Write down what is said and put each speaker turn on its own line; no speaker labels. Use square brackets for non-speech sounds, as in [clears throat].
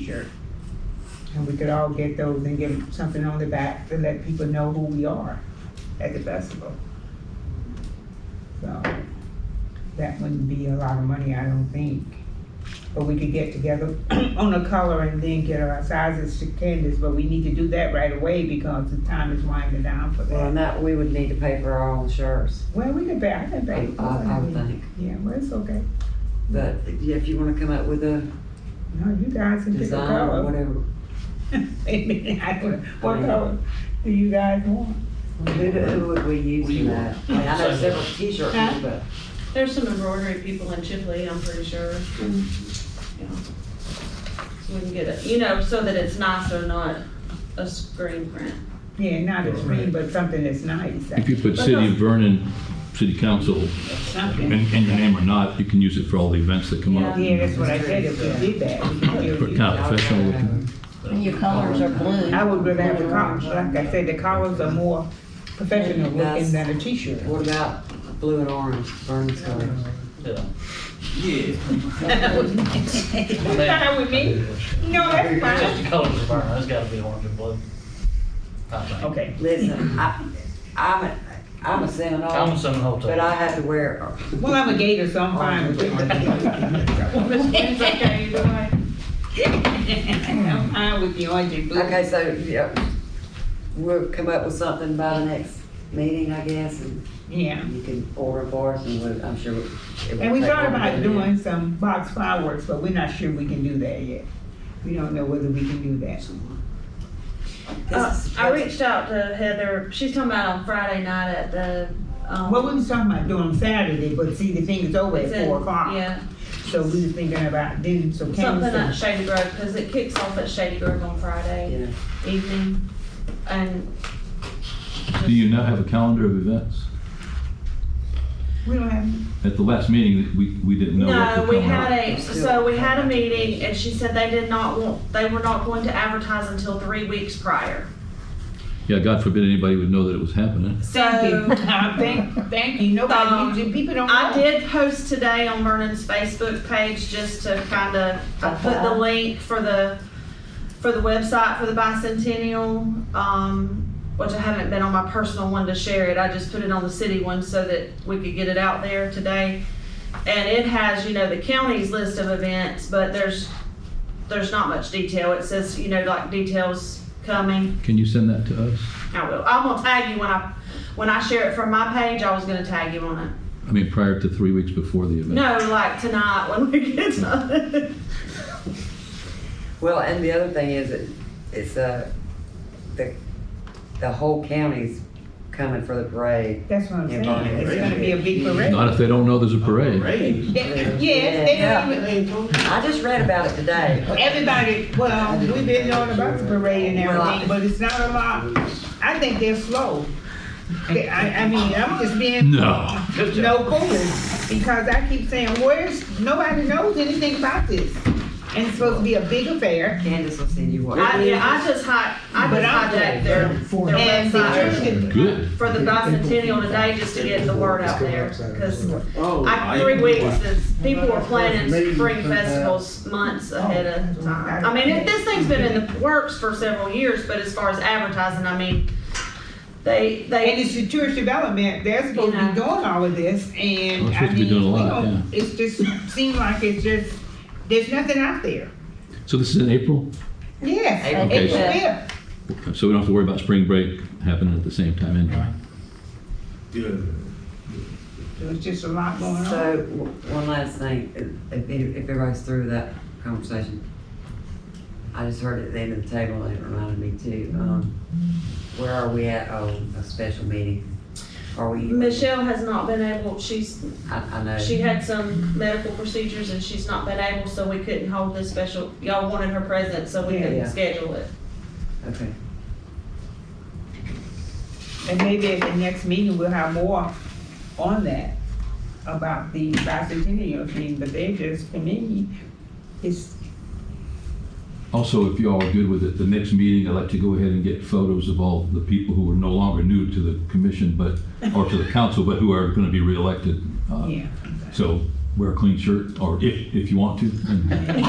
T-shirt. And we could all get those and get something on the back to let people know who we are at the festival. So, that wouldn't be a lot of money, I don't think. But we could get together [clears throat] on the color and then get our sizes to Candace, but we need to do that right away because the time is winding down for
Well, and
that.
that, we would need to pay for our own shirts,
Well, we could pay, I can
I,
pay. for
I I would
it.
think.
Yeah, well, it's okay.
But yeah, if you wanna come up with a
No, you guys can pick a
design or
color.
whatever.
[laughs] What color do you guys want?
Who, do- who would we use
We-
for that? I mean, I know several t-shirt
Huh?
people, but
There's some embroidery people in Chipley, I'm pretty sure.
Mm-hmm.
Yeah. So we can get it, you know, so that it's nice or not a screen
[laughs]
print.
Yeah, not a screen, but something that's nice.
If you put City of Vernon, City Council, and,
Something.
and your name or not, you can use it for all the events that come up.
Yeah, that's what I said, if we did that, we could give
But
you-
kind of professional looking.
And your colors are blue.
I would rather have the collars, like I said, the collars are more professional looking than a t-shirt.
what about blue and orange, Vernon's colors?
Yeah.
[laughs] Fine with me. No, that's
Just
fine.
the colors of burn, that's gotta be orange and blue. I think.
Okay.
Listen, I, I'm, a- I'm assuming
I'm
all,
assuming whole
but I have to wear,
Well, I'm a gator, so I'm fine with it.
It's okay either way.
[laughs] I'm fine with the orange and blue.
okay, so, yeah, we'll come up with something by the next meeting, I guess, and
Yeah.
you can order for us, and we'll- I'm sure. it won't
And we
take
thought
long to
about
do that.
doing some box fireworks, but we're not sure we can do that yet. We don't know whether we can do that.
This
Uh,
is
I reached out to Heather, she's talking about on Friday night at the, um.
What we was talking about doing Saturday, but see, the thing is over
it's
at
in-
four o'clock.
Yeah,
So we were thinking about then, so
something at
Candace,
Shady Grove, cause it kicks off at Shady Grove on Friday
Yeah.
evening. And
Do you not have a calendar of events?
we don't
[laughs]
have, [laughs]
At the last meeting, we, we didn't know what
No,
to
we
come
had
up.
a, so we had a meeting and she said they did not want, they were not going to advertise until three weeks prior.
Yeah, God forbid anybody would know that it was happening.
thank you,
So
thank, thank you,
Um,
nobody, people don't know.
I did post today on Vernon's Facebook page just to kind of, I put the link for the, for the website for the bicentennial, um, which I haven't been on my personal one to share it. I just put it on the city one so that we could get it out there today. And it has, you know, the county's list of events, but there's, there's not much detail. It says, you know, like details coming.
Can you send that to us?
I will. I'm gonna tag you when I, when I share it from my page, I was gonna tag you on it.
I mean, prior to three weeks before the event.
No, like tonight when we
[laughs]
get done.
Well, and the other thing is, it- it's, uh, the, the whole county's coming for the parade.
That's what I'm
Yeah,
saying,
Bonnie,
it's
right.
gonna be a big parade.
Not if they don't know there's a
[laughs]
parade.
Parade.
Yeah, Yes, they don't even,
I just read about it today.
everybody, well, we've been knowing about the parade and everything, but it's not a lot. I think they're slow. They- I, I mean, I'm just being
No.
no foolish, because I keep saying, where's, nobody knows anything about this. And it's supposed to be a big affair,
Candace will send you what.
I, yeah, I just hi, I
But
just
I'm
hijacked their, their
and the church
website
can-
Good.
for the bicentennial today just to get the word out there. Cause I, three weeks, is- people are planning spring festivals months ahead
Oh,
of time. I mean, it- this thing's been in the works for several years, but as far as advertising, I mean, they, they.
And it's the church development, they're supposed to be
Yeah.
doing all of this, and
We're
I
supposed to be
mean, we
doing a lot,
don't, it's just, seem like it's just, there's nothing out there.
So this is in April,
Yes,
April
April
fifth.
fifth,
so we don't have to worry about spring break happening at the same time anyway.
there's just a lot going on.
So, w- one last thing, if, if any- if everybody's through with that conversation, I just heard it at the end of the table, and it reminded me too, um, where are we at on a special meeting? Are we?
Michelle has not been able, she's
I, I know.
She had some medical procedures and she's not been able, so we couldn't hold this special, y'all wanted her present, so we
Yeah,
yeah.
couldn't schedule it.
Okay.
And maybe at the next meeting, we'll have more on that, about the bicentennial thing, but they just, to me, it's,
Also, if you all are good with it, the next meeting, I'd like to go ahead and get photos of all the people who are no longer new to the commission, but, or to the council, but who are going to be reelected. Uh,
yeah.
So wear a clean shirt, or if, if you want to. and-